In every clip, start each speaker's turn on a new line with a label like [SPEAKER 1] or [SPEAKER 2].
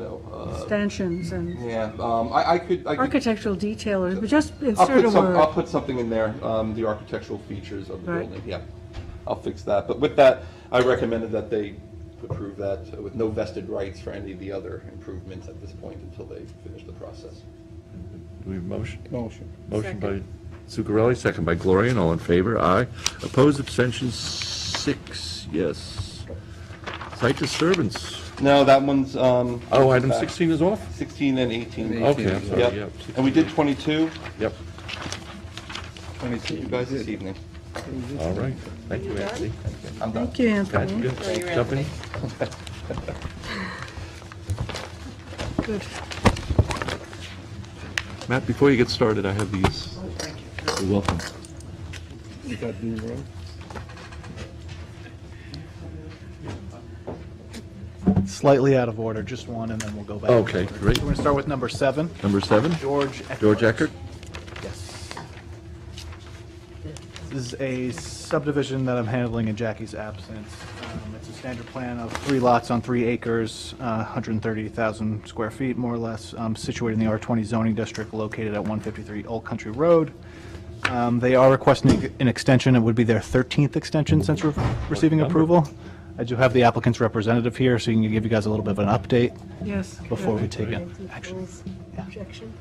[SPEAKER 1] uh,
[SPEAKER 2] extensions and
[SPEAKER 3] Yeah, um, I, I could, I could,
[SPEAKER 2] architectural detailers, but just
[SPEAKER 3] I'll
[SPEAKER 2] insert a
[SPEAKER 3] put some, I'll
[SPEAKER 2] word.
[SPEAKER 3] put something in there, um, the architectural features of the
[SPEAKER 2] Right.
[SPEAKER 3] building, yeah. I'll fix that, but with that, I recommended that they approve that with no vested rights for any of the other improvements at this point until they finish the process.
[SPEAKER 1] Do we have a motion?
[SPEAKER 4] Motion.
[SPEAKER 1] Motion by Zuccarelli, second by Gloria, and all in favor, aye. Opposed, abstentions, six, yes. Site disturbance,
[SPEAKER 3] No, that one's, um,
[SPEAKER 1] oh, item 16 is off?
[SPEAKER 3] sixteen and eighteen.
[SPEAKER 1] Okay, I'm sorry,
[SPEAKER 3] Yep.
[SPEAKER 1] yep.
[SPEAKER 3] And we did twenty-two,
[SPEAKER 1] Yep,
[SPEAKER 3] you guys this evening.
[SPEAKER 1] all right, thank you, Anthony.
[SPEAKER 3] I'm done.
[SPEAKER 2] Thank you, Anthony.
[SPEAKER 1] Gotcha.
[SPEAKER 5] Throw you,
[SPEAKER 1] Jump in.
[SPEAKER 5] Anthony.
[SPEAKER 2] Good.
[SPEAKER 1] Matt, before you get started, I have these. You're welcome.
[SPEAKER 4] You got Dean Road?
[SPEAKER 6] Slightly out of order, just one, and then we'll go back.
[SPEAKER 1] Okay, great.
[SPEAKER 6] We're going to start with number seven,
[SPEAKER 1] Number seven,
[SPEAKER 6] George Eckert.
[SPEAKER 1] George Eckert?
[SPEAKER 6] Yes. This is a subdivision that I'm handling in Jackie's absence. Um, It's a standard plan of three lots on three acres, uh, 130,000 square feet, more or less, um, situated in the R20 zoning district, located at 153 Old Country Road. Um, They are requesting an extension, it would be their 13th extension since re- receiving approval. I do have the applicant's representative here, so he can give you guys a little bit of an update.
[SPEAKER 2] Yes. good.
[SPEAKER 6] Before we take it.
[SPEAKER 7] Action. Objection?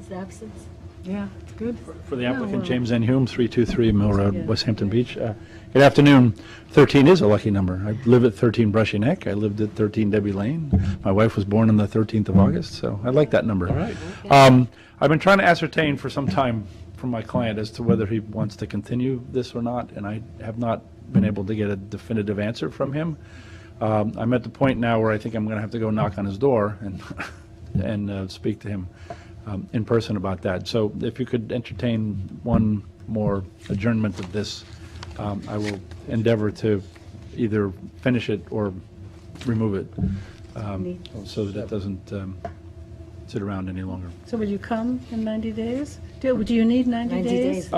[SPEAKER 7] His absence?
[SPEAKER 2] Yeah, it's good. uh,
[SPEAKER 8] For the
[SPEAKER 2] Yeah, well-
[SPEAKER 8] applicant, James N. Hume, 323 Mill
[SPEAKER 7] Yeah.
[SPEAKER 8] Road, West Hampton Beach. Uh, Good afternoon. 13 is a lucky number. I live at 13 Brushy Neck. I lived at 13 Debbie Lane. My wife was born on the 13th of August, so I like that number. All right. I've been trying to ascertain for some time from my client as to whether he wants to continue this or not, and I have not been able to get a definitive answer from him. Um, I'm at the point now where I think I'm going to have to go knock on his door and, and uh, speak to him um, in person about that. So if you could entertain one more adjournment of this, um, I will endeavor to either finish it or remove it, um, so that it doesn't um, sit around any longer.
[SPEAKER 2] So will you come in 90 days? Do do you need 90
[SPEAKER 7] 90
[SPEAKER 2] days?
[SPEAKER 7] days.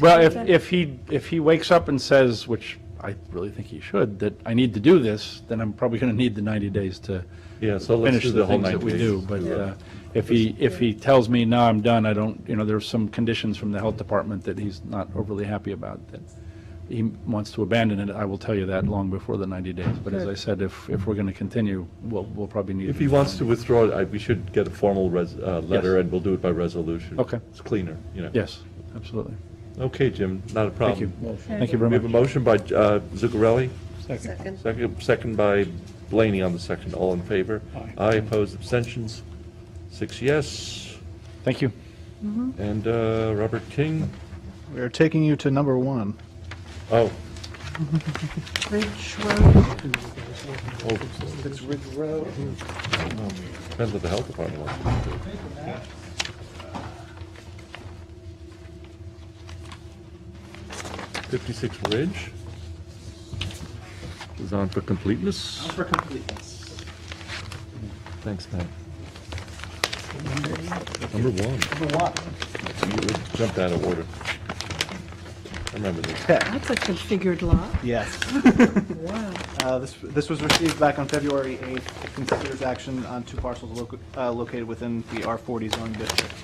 [SPEAKER 8] Well, if,
[SPEAKER 2] Okay.
[SPEAKER 8] if he, if he wakes up and says, which I really think he should, that I need to do this, then I'm probably going to need the 90 days to
[SPEAKER 1] Yeah, so let's
[SPEAKER 8] finish
[SPEAKER 1] do
[SPEAKER 8] the
[SPEAKER 1] the whole
[SPEAKER 8] things
[SPEAKER 1] 90
[SPEAKER 8] that we
[SPEAKER 1] days.
[SPEAKER 8] do. But uh, if he, if he tells me, no, I'm done, I don't, you know, there's some conditions from the health department that he's not overly happy about, that he wants to abandon it, I will tell you that long before the 90 days. But as I said, if, if we're going to continue, we'll, we'll probably need.
[SPEAKER 1] If he wants to withdraw, I- we should get a formal res- uh, letter, and we'll do it by resolution.
[SPEAKER 8] Okay.
[SPEAKER 1] It's cleaner, you know.
[SPEAKER 8] Yes, absolutely.
[SPEAKER 1] Okay, Jim, not a
[SPEAKER 8] Thank you.
[SPEAKER 1] problem.
[SPEAKER 8] Thank you very
[SPEAKER 1] We
[SPEAKER 8] much.
[SPEAKER 1] have a motion by uh, Zuccarelli,
[SPEAKER 5] Second.
[SPEAKER 1] second second by Blaney on the second. All in favor?
[SPEAKER 4] Aye.
[SPEAKER 1] Aye, opposed, abstentions? Six yes.
[SPEAKER 8] Thank you.
[SPEAKER 1] And uh, Robert King?
[SPEAKER 6] We're taking you to number one.
[SPEAKER 1] Oh,
[SPEAKER 2] Ridge Road,
[SPEAKER 4] It's Ridge Road.
[SPEAKER 1] depends what the health department wants us to do. Fifty-six Ridge is on for completeness.
[SPEAKER 6] For completeness.
[SPEAKER 1] Thanks, Matt. Number one.
[SPEAKER 6] Number one.
[SPEAKER 1] You jumped out of order. I remember this.
[SPEAKER 2] that's a configured lot.
[SPEAKER 6] Yes.
[SPEAKER 2] Wow.
[SPEAKER 6] Uh, This this was received back on February 8th. It considers action on two parcels loca- uh, located within the R40 zone district,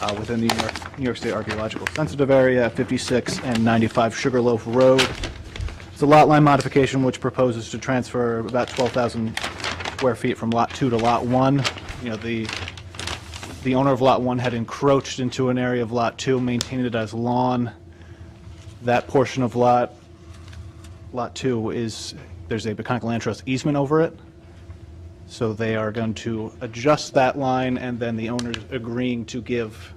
[SPEAKER 6] uh, within the New York- New York State Archaeological Sensitive Area, 56 and 95 Sugarloaf Road. It's a lot line modification which proposes to transfer about 12,000 square feet from Lot 2 to Lot 1. You know, the the owner of Lot 1 had encroached into an area of Lot 2, maintained it as lawn. That portion of Lot Lot 2 is, there's a Peconic Land Trust easement over it. So they are going to adjust that line, and then the owner's agreeing to give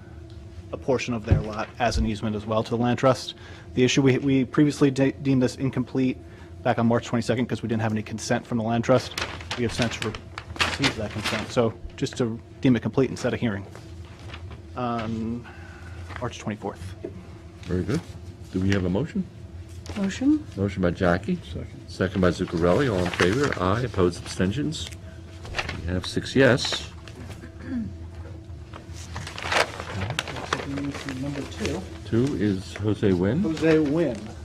[SPEAKER 6] a portion of their lot as an easement as well to the land trust. The issue, we, we previously de- deemed this incomplete back on March 22nd because we didn't have any consent from the land trust. We have since re- received that consent, so just to deem it complete and set a hearing on March 24th.
[SPEAKER 1] Very good. Do we have a motion?
[SPEAKER 2] Motion?
[SPEAKER 1] Motion by Jackie.
[SPEAKER 4] Second.
[SPEAKER 1] Second by Zuccarelli, all in favor, aye, opposed, abstentions. We have six yes.
[SPEAKER 6] Taking you to number two.
[SPEAKER 1] Two is Jose Nguyen.
[SPEAKER 6] Jose Nguyen.